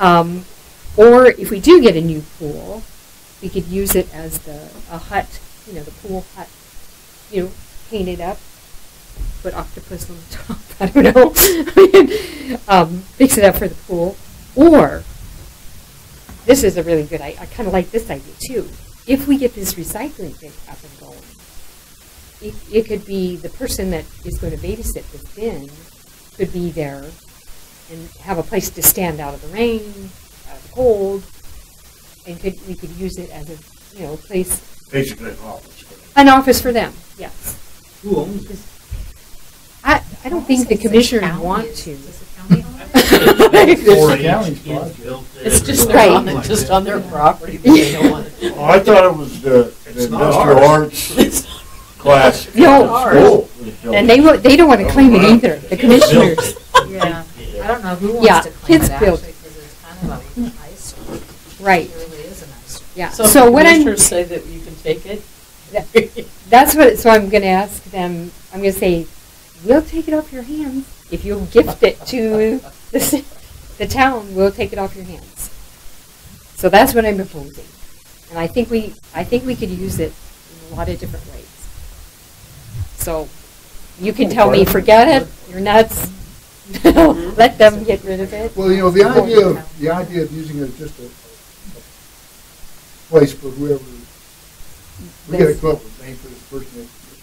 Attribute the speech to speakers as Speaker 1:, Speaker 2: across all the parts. Speaker 1: Um, or if we do get a new pool, we could use it as the, a hut, you know, the pool hut, you know, paint it up, put octopus on the top, I don't know. I mean, um, fix it up for the pool. Or, this is a really good, I, I kind of like this idea too. If we get this recycling thing up and going, it, it could be the person that is going to babysit this bin could be there and have a place to stand out of the rain, out of the cold, and could, we could use it as a, you know, place,
Speaker 2: basically an office.
Speaker 1: an office for them, yes.
Speaker 3: Who owns this?
Speaker 1: I, I don't think the commissioners want to.
Speaker 2: Four
Speaker 3: It's
Speaker 2: acres.
Speaker 3: kids built it.
Speaker 4: It's just
Speaker 1: Right.
Speaker 4: their, on the- just on their property, but they don't want it.
Speaker 2: Oh, I thought it was the the
Speaker 3: It's not
Speaker 2: industrial
Speaker 3: ours.
Speaker 2: arts class. at
Speaker 1: No.
Speaker 2: school.
Speaker 1: And they, wa- they don't want to claim it either, the commissioners.
Speaker 5: Yeah, I don't know who
Speaker 1: Yeah,
Speaker 5: wants to claim
Speaker 1: kids
Speaker 5: it
Speaker 1: built.
Speaker 5: actually, because it's kind of an eyesore.
Speaker 1: Right,
Speaker 5: It really is an eyesore.
Speaker 1: yeah.
Speaker 4: So if the
Speaker 1: So what I'm,
Speaker 4: commissioners say that you can take it,
Speaker 1: that's what, so I'm going to ask them, I'm going to say, we'll take it off your hands. If you'll gift it to the, ci- the town, we'll take it off your hands. So that's what I'm proposing. And I think we, I think we could use it in a lot of different ways. So you can tell me, forget it, you're nuts. Let them get rid of it.
Speaker 6: Well, you know, the idea of, the idea of using it as just a a place for whoever, we gotta come up with a name for this person that's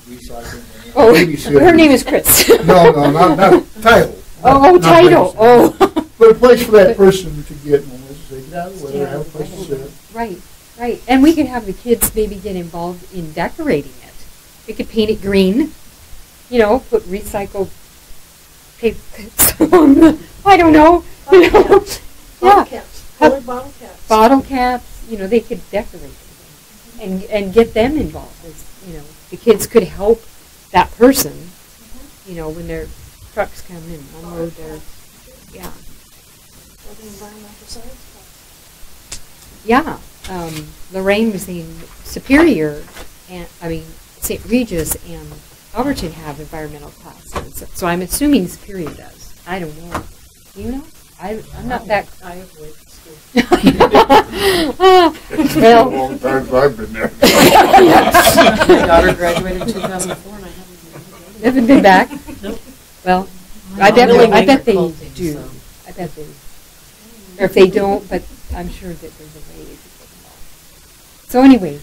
Speaker 6: recycling.
Speaker 1: Oh,
Speaker 6: and babysitting.
Speaker 1: her name is Chris.
Speaker 6: No, no, not, not title.
Speaker 1: Oh,
Speaker 6: Not- not
Speaker 1: title,
Speaker 6: babysitting.
Speaker 1: oh.
Speaker 6: But a place for that person to get, and let's say, get out of the way, have a place to sit.
Speaker 1: Right, right. And we could have the kids maybe get involved in decorating it. We could paint it green, you know, put recycled paper clips on the, I don't know, you know. Yeah. Have
Speaker 7: bottle caps.
Speaker 1: Bottle caps, you know, they could decorate it and, and get them involved. as, You know, the kids could help that person, you know, when their trucks come in, unload their, yeah.
Speaker 7: Or the environmental science class.
Speaker 1: Yeah, um, Lorraine was in Superior, and I mean St. Regis and Alberton have environmental classes. So I'm assuming Superior does. I don't know. Do you know? I, I'm not that.
Speaker 4: I avoid school.
Speaker 2: It's been a
Speaker 1: well,
Speaker 2: long time since I've been there.
Speaker 4: My daughter graduated in
Speaker 5: 2004 and I haven't.
Speaker 1: haven't been back. Well, I bet
Speaker 4: Really
Speaker 1: I bet they
Speaker 5: consulting,
Speaker 1: do.
Speaker 5: so.
Speaker 1: I bet they. Or if they don't, but I'm sure that there's a way. to get involved. So anyway,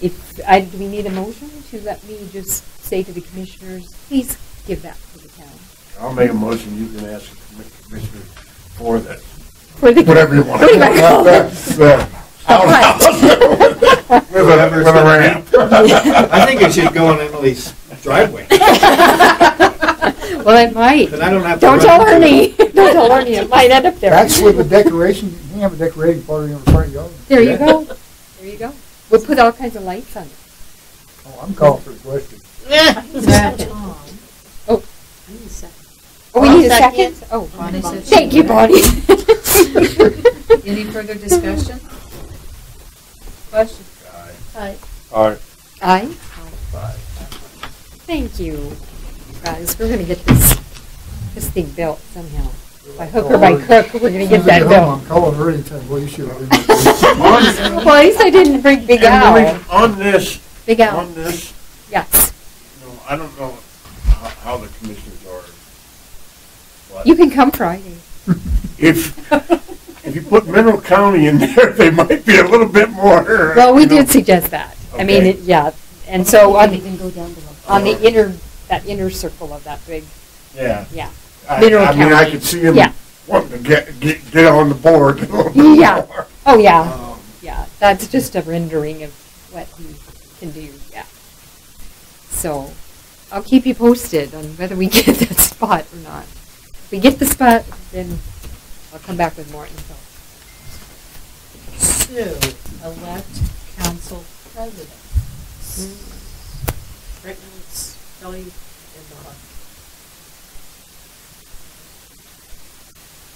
Speaker 1: if I, do we need a motion to let me just say to the commissioners, please give that to the town.
Speaker 2: I'll make a motion, you can ask the commi- commissioner for that,
Speaker 1: For the
Speaker 2: whatever you want.
Speaker 1: What do you want?
Speaker 2: With a, with a ramp.
Speaker 3: I think it should go on Emily's driveway,
Speaker 1: Well, it might.
Speaker 3: but I don't have to.
Speaker 1: Don't
Speaker 3: run
Speaker 1: tell
Speaker 3: into it.
Speaker 1: Ernie. Don't tell Ernie. It might end up there.
Speaker 6: That's where the decoration, you can have a decorating party on the front yard.
Speaker 1: There you go. There you go. We'll put all kinds of lights on it.
Speaker 6: Oh, I'm calling for the question.
Speaker 1: Oh.
Speaker 5: I need a second.
Speaker 1: Oh, we need a second? Oh,
Speaker 5: Bonnie said she
Speaker 1: thank you,
Speaker 5: would.
Speaker 1: Bonnie.
Speaker 5: Any further discussion? Question?
Speaker 2: All right.
Speaker 1: Aye. Thank you, guys. We're gonna get this, this thing built somehow. By hook or by crook, we're gonna get that
Speaker 6: I'm
Speaker 1: built.
Speaker 6: calling her anytime, well, you should. have been-
Speaker 1: Well, at least I didn't bring Big Al.
Speaker 2: On this,
Speaker 1: Big Al,
Speaker 2: on this,
Speaker 1: yes.
Speaker 2: you know, I don't know how, how the commissioners are. but
Speaker 1: You can come Friday.
Speaker 2: If, if you put Mineral County in there, they might be a little bit more. uh,
Speaker 1: Well, we
Speaker 2: you know.
Speaker 1: did suggest that. I mean,
Speaker 2: Okay.
Speaker 1: it- yeah, and so on the,
Speaker 5: go down below.
Speaker 1: on the inner, that inner circle of that big,
Speaker 2: Yeah.
Speaker 1: yeah.
Speaker 2: I,
Speaker 1: Mineral
Speaker 2: I mean, I
Speaker 1: County.
Speaker 2: could see him
Speaker 1: Yeah.
Speaker 2: wanting to get, get, get on the board a little bit
Speaker 1: Yeah.
Speaker 2: more.
Speaker 1: Oh, yeah, yeah, that's just a rendering of what he can do, yeah. So, I'll keep you posted on whether we get that spot or not. If we get the spot, then I'll come back with more info.
Speaker 5: Sue, elect council president. Right now it's Kelly and Bob.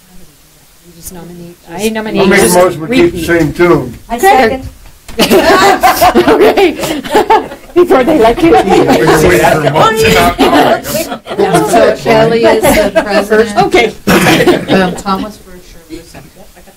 Speaker 5: How do we do that?
Speaker 1: You just nominate, I nominate.
Speaker 2: I'll make a
Speaker 1: just
Speaker 2: motion, we keep the
Speaker 1: repeat.
Speaker 2: same tune.
Speaker 1: I second. Okay. Before they let you.
Speaker 2: We've been waiting for months and not calling him.
Speaker 5: So Kelly is the president.
Speaker 1: Okay.
Speaker 5: Um, Thomas for